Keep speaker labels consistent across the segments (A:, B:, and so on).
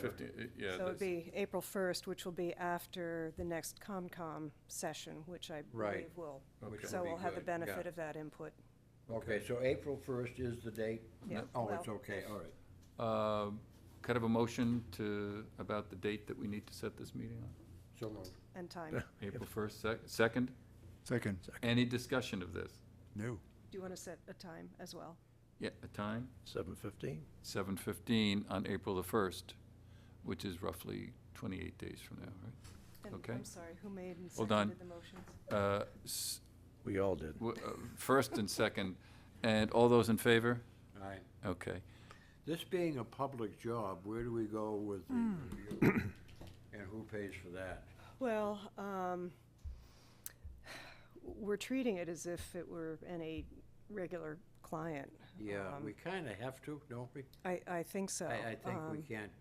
A: Fifty, uh, yeah.
B: So it'd
A: that's-
B: be April 1st, which will be after the next COMCOM session, which I
C: Right.
B: believe will.
A: Which
B: So
A: would be
B: we'll have the
A: good,
B: benefit
C: yeah.
B: of that input.
C: Okay, so April first is the date?
B: Yeah,
C: Oh, it's
B: well-
C: okay, all right.
A: Um, Could I have a motion to, about the date that we need to set this meeting on?
C: So moved.
B: And time.
A: April first, sec- second?
D: Second.
A: Any discussion of this?
D: No.
B: Do you want to set a time as well?
A: Yeah, a time?
E: Seven fifteen?
A: Seven fifteen on April the first, which is roughly twenty-eight days from now, right?
B: And
A: Okay.
B: I'm sorry, who made and
A: Well done.
B: seconded the motions?
A: Uh, s-
E: We all did.
A: w- uh, First and second, and all those in favor?
C: All right.
A: Okay.
C: This being a public job, where do we go with the review?
B: Hmm.
C: And who pays for that?
B: Well, um, we're treating it as if it were any regular client.
C: Yeah,
B: Um,
C: we kinda have to, don't we?
B: I, I think so.
C: I, I think we
B: Um,
C: can't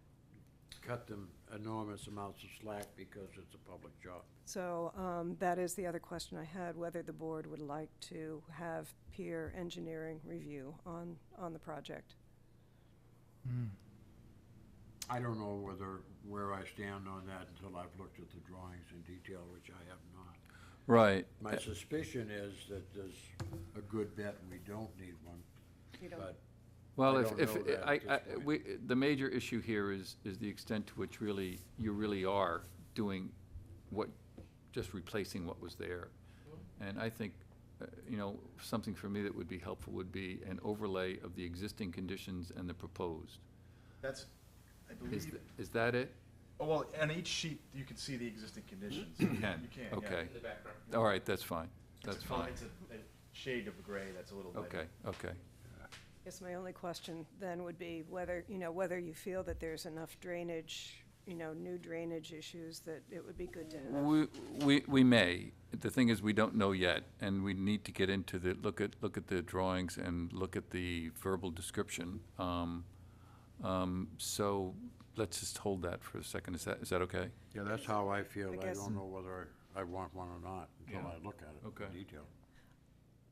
C: cut them enormous amounts of slack because it's a public job.
B: So um, that is the other question I had, whether the board would like to have peer engineering review on, on the project.
C: I don't know whether, where I stand on that until I've looked at the drawings in detail, which I have not.
A: Right.
C: My suspicion is that there's a good bet we don't need one,
B: You don't-
C: but
A: Well,
C: I
A: if,
C: don't
A: if,
C: know that
A: I,
C: at
A: I,
C: this point.
A: we, the major issue here is, is the extent to which really, you really are doing what, just replacing what was there.
F: Mm-hmm.
A: And I think, uh, you know, something for me that would be helpful would be an overlay of the existing conditions and the proposed.
F: That's, I
A: Is,
F: believe,
A: th- is that it?
F: oh, well, on each sheet, you can see the existing conditions.
A: You can?
F: You can, yeah.
A: Okay.
F: It's
A: All right, that's fine,
F: a
A: that's
F: col-
A: fine.
F: It's a, a shade of gray that's a little bit.
A: Okay, okay.
B: Guess my only question then would be whether, you know, whether you feel that there's enough drainage, you know, new drainage issues that it would be good to have.
A: We, we, we may. The thing is, we don't know yet, and we need to get into the, look at, look at the drawings and look at the verbal description. Um, um, So let's just hold that for a second. Is that, is that okay?
C: yeah, that's how I feel.
B: I
C: I
B: guess-
C: don't know whether I want one or not until
A: Yeah.
C: I look at it
A: Okay.
C: in detail.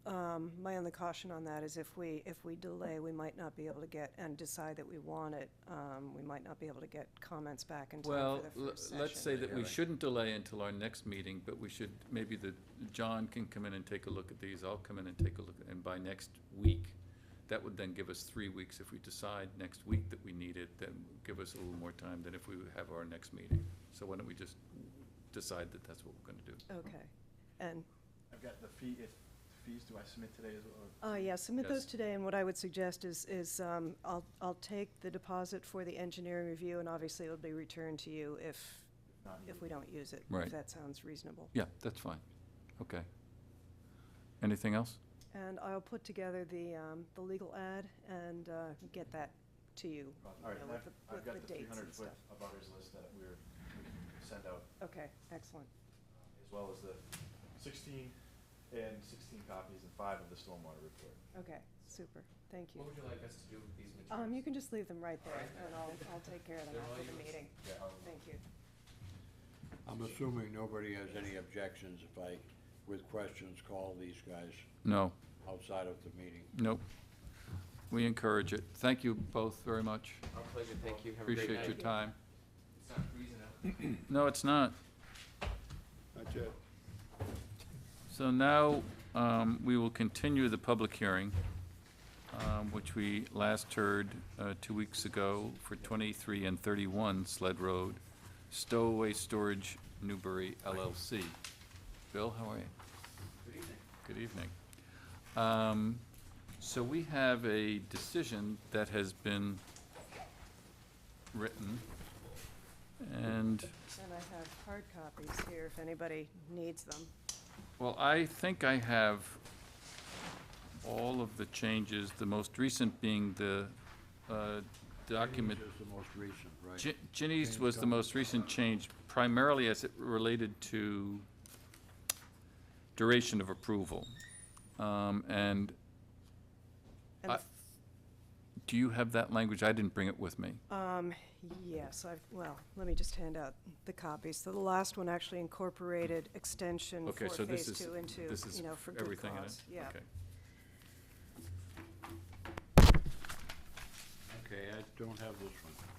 B: Um, My only caution on that is if we, if we delay, we might not be able to get, and decide that we want it, um, we might not be able to get comments back in time
A: Well,
B: for the
A: l-
B: first
A: let's
B: session.
A: say that we shouldn't delay until our next meeting, but we should, maybe the, John can come in and take a look at these, I'll come in and take a look, and by next week, that would then give us three weeks, if we decide next week that we need it, then give us a little more time than if we would have our next meeting. So why don't we just decide that that's what we're gonna do?
B: Okay. And
F: I've got the fee, if, fees, do I submit today as well?
B: Uh, yeah, submit
A: Yes.
B: those today, and what I would suggest is, is, um, I'll, I'll take the deposit for the engineering review, and obviously it'll be returned to you if,
F: Not
B: if we don't use it.
A: Right.
B: If that sounds reasonable.
A: Yeah, that's fine, okay. Anything else?
B: And I'll put together the, um, the legal ad and, uh, get that to you.
F: All
B: you
F: right,
B: know,
F: and
B: with
F: I've,
B: the-
F: I've
B: with
F: got
B: the
F: the three
B: dates and
F: hundred foot
B: stuff.
F: abutters list that we're, we can send out,
B: Okay, excellent.
F: as well as the sixteen and sixteen copies and five of the stormwater report.
B: Okay, super, thank you.
G: What would you like us to do with these materials?
B: Um, you can just leave them right there,
G: Alright.
B: and I'll, I'll take care of them
G: They're all
B: after the
G: yours.
B: meeting.
F: Yeah, I'll-
B: Thank you.
C: I'm assuming nobody has any objections if I, with questions, call these guys
A: No,
C: outside of the meeting.
A: nope, we encourage it, thank you both very much,
G: Our pleasure, thank you, have a great night.
A: appreciate your time.
G: It's not freezing out.
A: No, it's not.
D: Not yet.
A: So now, um, we will continue the public hearing, um, which we last heard, uh, two weeks ago for twenty-three and thirty-one Sled Road, Stowaway Storage Newbury LLC. Bill, how are you? Good evening. Good evening. Um, so we have a decision that has been written, and
B: And I have hard copies here if anybody needs them.
A: Well, I think I have all of the changes, the most recent being the uh, document.
C: Which is the most recent, right?
A: Gi- Ginny's was the most recent change primarily as it related to duration of approval. Um, And
B: And the
A: I- do you have that language? I didn't bring it with me.
B: Um, yes, I've, well, let me just hand out the copies. So the last one actually incorporated extension
A: Okay,
B: for
A: so this
B: phase
A: is,
B: two into,
A: this is
B: you know, for good
A: everything in it?
B: cause. Yeah.
A: Okay.
C: Okay, I don't have this one.